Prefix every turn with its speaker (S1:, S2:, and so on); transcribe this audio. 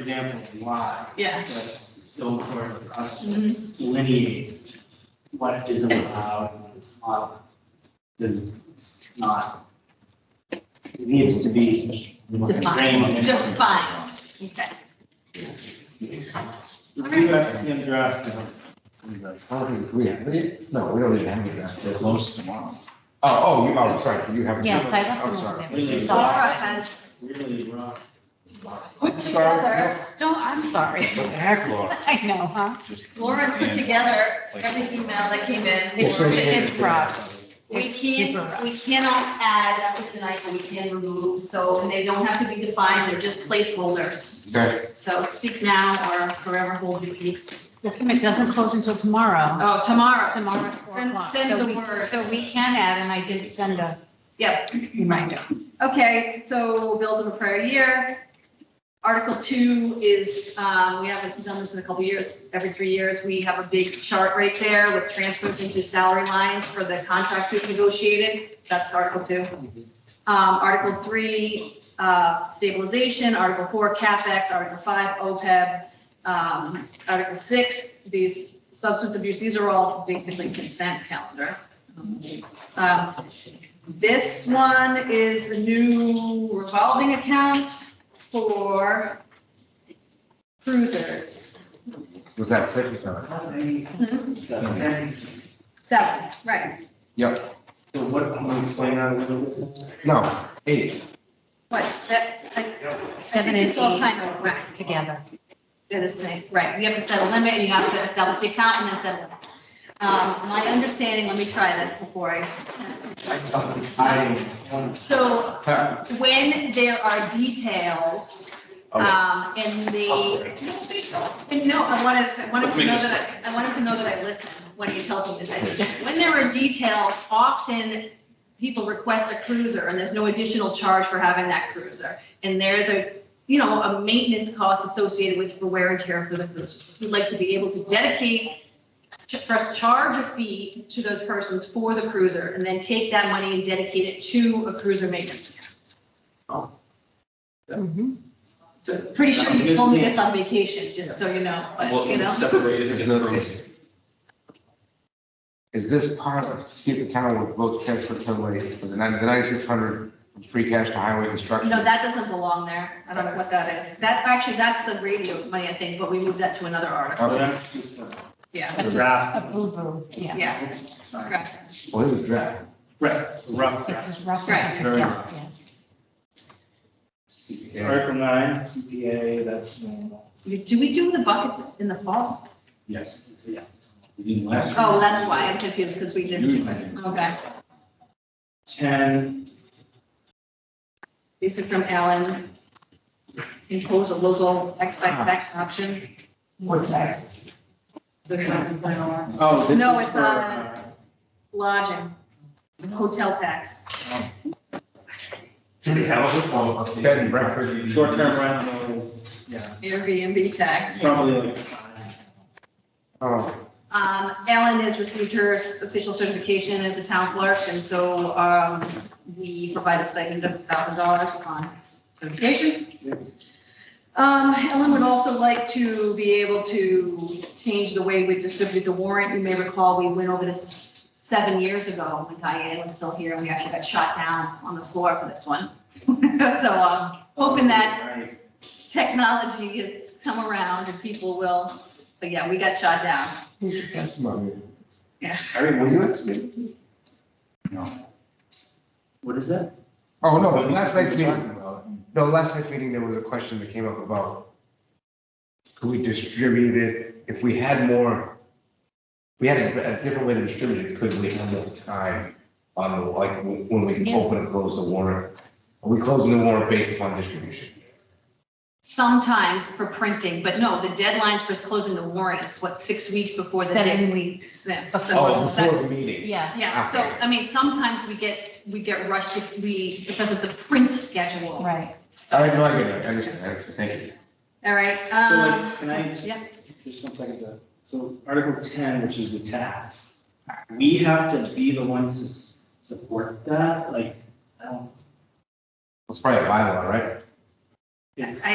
S1: example, why.
S2: Yes.
S1: That's so important for us to
S2: Mhm.
S1: delineate what is allowed and what's not. Because it's not, it needs to be.
S2: Defined,
S1: constrained.
S2: defined, okay.
S1: The USDA draft, you know,
S3: No, we don't even have that. They're closed tomorrow.
S4: Oh, oh, you, oh, sorry, you have.
S5: Yes, I left
S4: I'm
S5: them all
S4: sorry.
S5: there. She's all
S2: Laura
S5: right.
S2: has
S1: it's really rough.
S5: Put
S4: Sorry,
S5: together, don't, I'm sorry.
S4: What the heck, Laura?
S5: I know, huh?
S4: Just-
S2: Laura's put
S4: And-
S2: together every email that came in. for-
S5: It's- it's rough.
S2: We
S5: It's
S2: can't,
S5: rough.
S2: we cannot add after tonight, we can remove, so they don't have to be defined, they're just placeholders.
S4: Okay,
S2: So speak now or forever hold your peace.
S5: The commit doesn't close until tomorrow,
S2: Oh, tomorrow.
S5: tomorrow at four
S2: Send-
S5: o'clock.
S2: send
S5: So
S2: the
S5: we-
S2: word.
S5: So we can add, and I did send a
S2: Yep,
S5: reminder.
S2: okay, so bills of a prior year. Article two is, uh, we haven't done this in a couple years, every three years, we have a big chart right there with transfers into salary lines for the contracts we've negotiated. That's article two. Um, Article three, uh, stabilization, Article four, CapEx, Article five, OPEB, um, Article six, these substance abuse, these are all basically consent calendar. Um, This one is a new revolving account for cruisers.
S4: was that six or seven?
S2: Seven, right,
S4: Yep,
S1: So what, can you explain that a little bit?
S4: no, eight.
S2: what's that? I- I
S5: Seven
S2: think
S5: and
S2: It's all
S5: eight
S2: kind of whack.
S5: together.
S2: They're the same, right, you have to set a limit, and you have to establish the account, and then set a limit. Um, my understanding, let me try this before I,
S1: I,
S2: so
S4: Huh,
S2: when there are details, um, in the, and no, I wanted to, I wanted
S4: Let's
S2: to
S4: make
S2: know
S4: this
S2: that, I I wanted to know that I listen when he tells me that I did. When there are details, often people request a cruiser, and there's no additional charge for having that cruiser. And there's a, you know, a maintenance cost associated with the wear and tear for the cruisers. We'd like to be able to dedicate, ch- first charge a fee to those persons for the cruiser, and then take that money and dedicate it to a cruiser maintenance.
S5: Mhm.
S2: So pretty sure you told me this on vacation, just so you know, but, you know.
S3: separated
S4: Is the- is this part of, see if the town would vote transfer somebody for the nine- the ninety-six hundred free cash to highway construction?
S2: No, that doesn't belong there. I don't know what that is. That, actually, that's the radio money, I think, but we moved that to another article.
S1: but that's just a
S2: Yeah,
S5: That's a-
S1: draft.
S5: A boo-boo, yeah.
S2: yeah.
S1: It's fine.
S2: Correct.
S4: Well, it was draft.
S1: Right, rough
S5: It's
S1: draft.
S5: as rough as
S2: Right.
S5: it could
S1: Very
S5: get,
S1: rough.
S5: yeah.
S4: Yeah.
S1: Article nine, CPA, that's uh, normal.
S2: Do we do the buckets in the fall?
S3: Yes.
S1: So, yeah.
S3: We didn't last.
S2: Oh, that's why I'm confused, because we didn't do it. Okay.
S1: Ten,
S2: These are from Alan. Impose a local excise tax option.
S3: What taxes?
S2: There's nothing going on.
S1: oh, this is
S2: No, it's uh,
S1: for,
S2: on- Lodging, hotel tax.
S3: Do they have a phone?
S4: Bed and breakfast.
S1: uh, Short-term rental is, yeah,
S2: Airbnb
S1: it's
S2: tax.
S1: probably like five.
S4: Oh,
S2: Um, Ellen has received her official certification as a town clerk, and so, um, we provide a stipend of thousand dollars upon certification. Um, Ellen would also like to be able to change the way we distribute the warrant. You may recall, we went over this seven years ago when Diane was still here, and we actually got shot down on the floor for this one. So, um, hoping that
S1: Right.
S2: technology has come around and people will, but yeah, we got shot down.
S4: that's money.
S2: Yeah.
S4: Harry, were you at this meeting?
S1: What is that?
S4: Oh, no, but last night's meeting, no, last night's meeting, there was a question that came up about could we distribute it, if we had more, we had a a different way to distribute it, could we have more time on, like, when we
S5: Yes.
S4: open and close the warrant? Are we closing the warrant based upon distribution?
S2: Sometimes for printing, but no, the deadlines for closing the warrant is what, six weeks before the day?
S5: Seven weeks.
S2: Yes, so
S4: Oh,
S2: that-
S4: before the meeting?
S5: Yeah.
S2: Yeah, so, I mean, sometimes we get, we get rushed if we, because of the print schedule.
S5: Right.
S4: All right, no, I get it, I understand, I understand, thank you.
S2: All right,
S1: So
S2: um,
S1: like, can I? just-
S2: yeah.
S1: Just one second, though. so Article ten, which is the tax, we have to be the ones to s- support um, that, like, I don't-
S4: It's probably a bylaw, right?
S1: it's.